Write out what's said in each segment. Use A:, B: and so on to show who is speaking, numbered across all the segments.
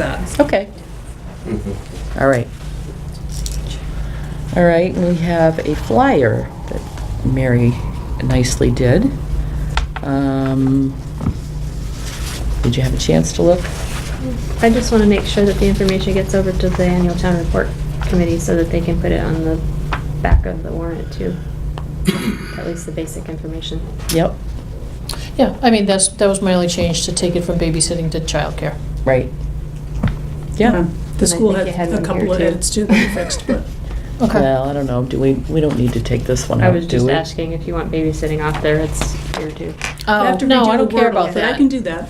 A: that.
B: Okay.
C: Mm-hmm.
B: All right. All right, we have a flyer that Mary nicely did. Um, Did you have a chance to look?
D: I just want to make sure that the information gets over to the annual town report committee so that they can put it on the back of the warrant too. At least the basic information.
B: Yep,
E: Yeah, I mean, that's, that was my only change, to take it from babysitting to childcare.
B: right. Yeah.
D: I
A: Um, The school had
D: think you had
A: a
D: one
A: couple
D: here,
A: of
D: too.
A: edits too that we fixed, but
E: Okay.
B: Well, I don't know, do we, we don't need to take this one
D: I
B: out,
D: was
B: do
D: just
B: we?
D: asking if you want babysitting off there, it's here too.
A: I
E: Oh,
A: have to
E: no, I
A: redo
E: don't
A: the
E: care
A: word
E: about
A: off it.
E: that.
A: I can do that.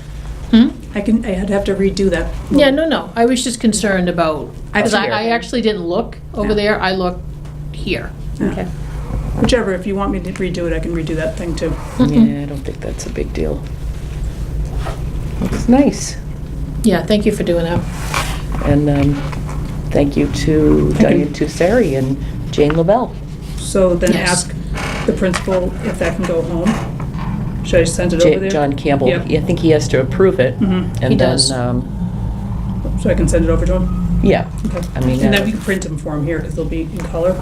E: Hmm?
A: I can, I'd have to redo that.
E: Yeah, no, no, I was just concerned about,
A: I
E: because I,
B: see.
E: I actually didn't look over
A: Yeah.
E: there, I looked here.
A: Yeah.
D: Okay.
A: Whichever, if you want me to redo it, I can redo that thing too.
B: Yeah, I don't think that's a big deal. Looks nice.
E: Yeah, thank you for doing that.
B: And um, thank you to
A: Thank you.
B: Diane Tussari and Jane LaBelle.
A: So then
E: Yes.
A: ask the principal if that can go home. Should I send it
B: Ja-
A: over there?
B: John Campbell,
A: Yep.
B: I think he has to approve it.
A: Mhm.
B: and then,
E: He does.
B: um,
A: So I can send it over to him?
B: Yeah,
A: Okay.
B: I mean,
A: And then
B: uh,
A: we can print them for him here, because they'll be in color.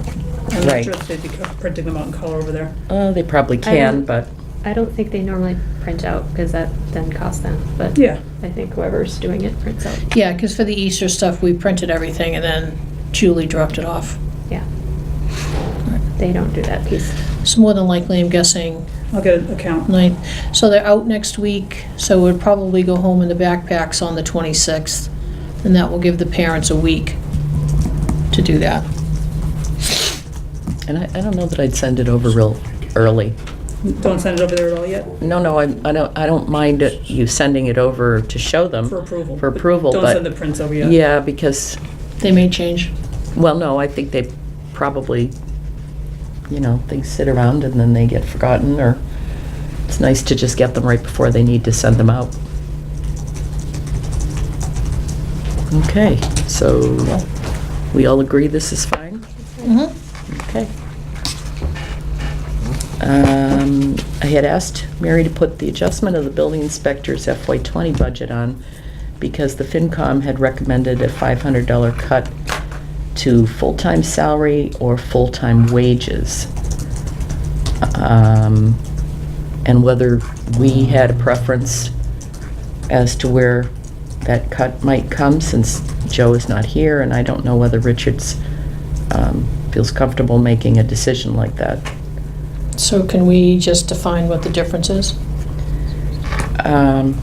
A: I'm not
B: Right.
A: sure if they'd be co- printing them out in color over there.
B: uh, they probably can,
D: don't-
B: but,
D: I don't think they normally print out because that then costs them, but
A: Yeah.
D: I think whoever's doing it prints out.
E: Yeah, because for the Easter stuff, we printed everything, and then Julie dropped it off.
D: Yeah. They don't do that piece.
E: So more than likely, I'm guessing
A: I'll get an account.
E: ninth. So they're out next week, so we'd probably go home in the backpacks on the 26th, and that will give the parents a week to do that.
B: and I I don't know that I'd send it over real early.
A: Don't send it over there at all yet
B: No, no, I I don't, I don't mind it- you sending it over to show them.
A: for approval.
B: Mm-hmm. For
A: but
B: approval,
A: Don't
B: but-
A: send the prints over yet.
B: Yeah, because,
E: They may change.
B: well, no, I think they probably, you know, they sit around and then they get forgotten, or it's nice to just get them right before they need to send them out. Okay, so we all agree this is fine?
E: Mm-hmm.
B: Okay. Um, I had asked Mary to put the adjustment of the building inspector's FY '20 budget on because the FinCom had recommended a $500 cut to full-time salary or full-time wages. Um, And whether we had a preference as to where that cut might come, since Joe is not here, and I don't know whether Richards um, feels comfortable making a decision like that.
E: So can we just define what the difference is?
B: Um,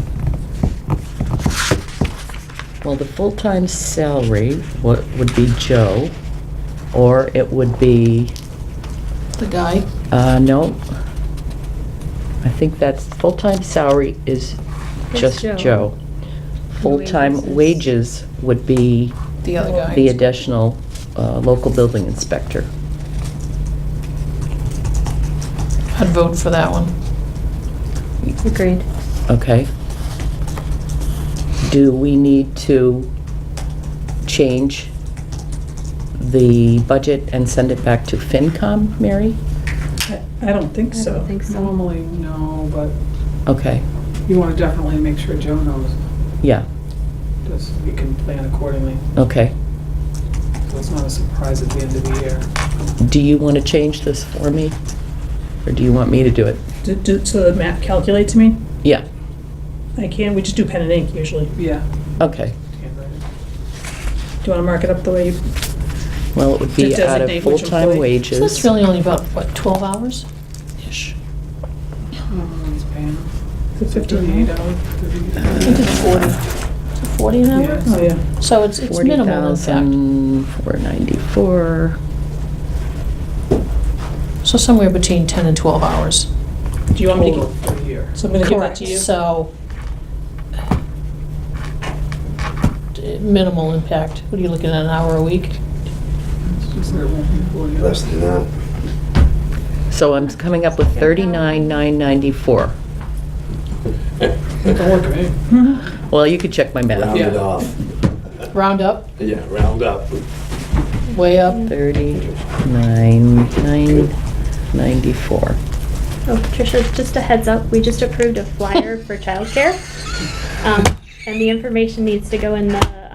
B: Well, the full-time salary wa- would be Joe, or it would be,
E: The guy?
B: uh, no, I think that's, full-time salary is
D: It's
B: just
D: Joe.
B: Joe. Full-time wages
D: Wages
B: would be
E: The other guy?
B: the additional uh, local building inspector.
E: I'd vote for that one.
D: Agreed.
B: Okay. Do we need to change the budget and send it back to FinCom, Mary?
A: I- I don't think
D: I
A: so.
D: don't think so.
F: Normally, no, but
B: Okay,
F: you want to definitely make sure Joe knows
B: yeah,
F: this. We can plan accordingly.
B: okay.
F: So it's not a surprise at the end of the year.
B: Do you want to change this for me? Or do you want me to do it?
A: Do- do- So the map calculates me?
B: Yeah,
A: I can, we just do pen and ink usually. Do
F: Yeah.
B: okay.
F: handwriting.
A: you want to mark it up the way you,
B: Well, it would be
A: To
B: out of
A: designate which
B: full-time
A: employee.
B: wages.
E: So that's really only about, what, 12 hours? Ish.
F: Everyone's paying
A: the 15?
F: fifty-eight dollars.
E: I think it's 40. Is it 40 an hour?
A: Oh, yeah.
E: So it's it's minimal impact.
B: 40,494.
E: So somewhere between 10 and 12 hours.
A: Do you want me to,
F: Total
A: g-
F: for the year.
A: so I'm going to give that to you?
E: So d- minimal impact. What are you looking at, an hour a week?
F: It's just that it won't be forty
C: Less than that.
B: So I'm coming up with 39,994.
F: Don't work, eh?
A: Mm-hmm.
B: Well, you could check my math.
C: Round it
F: Yeah.
C: off.
E: Round up,
C: Yeah, round up.
E: way up?
B: 39,994.
D: Oh, Tricia, just a heads up, we just approved a flyer for childcare. Um, and the information needs to go in the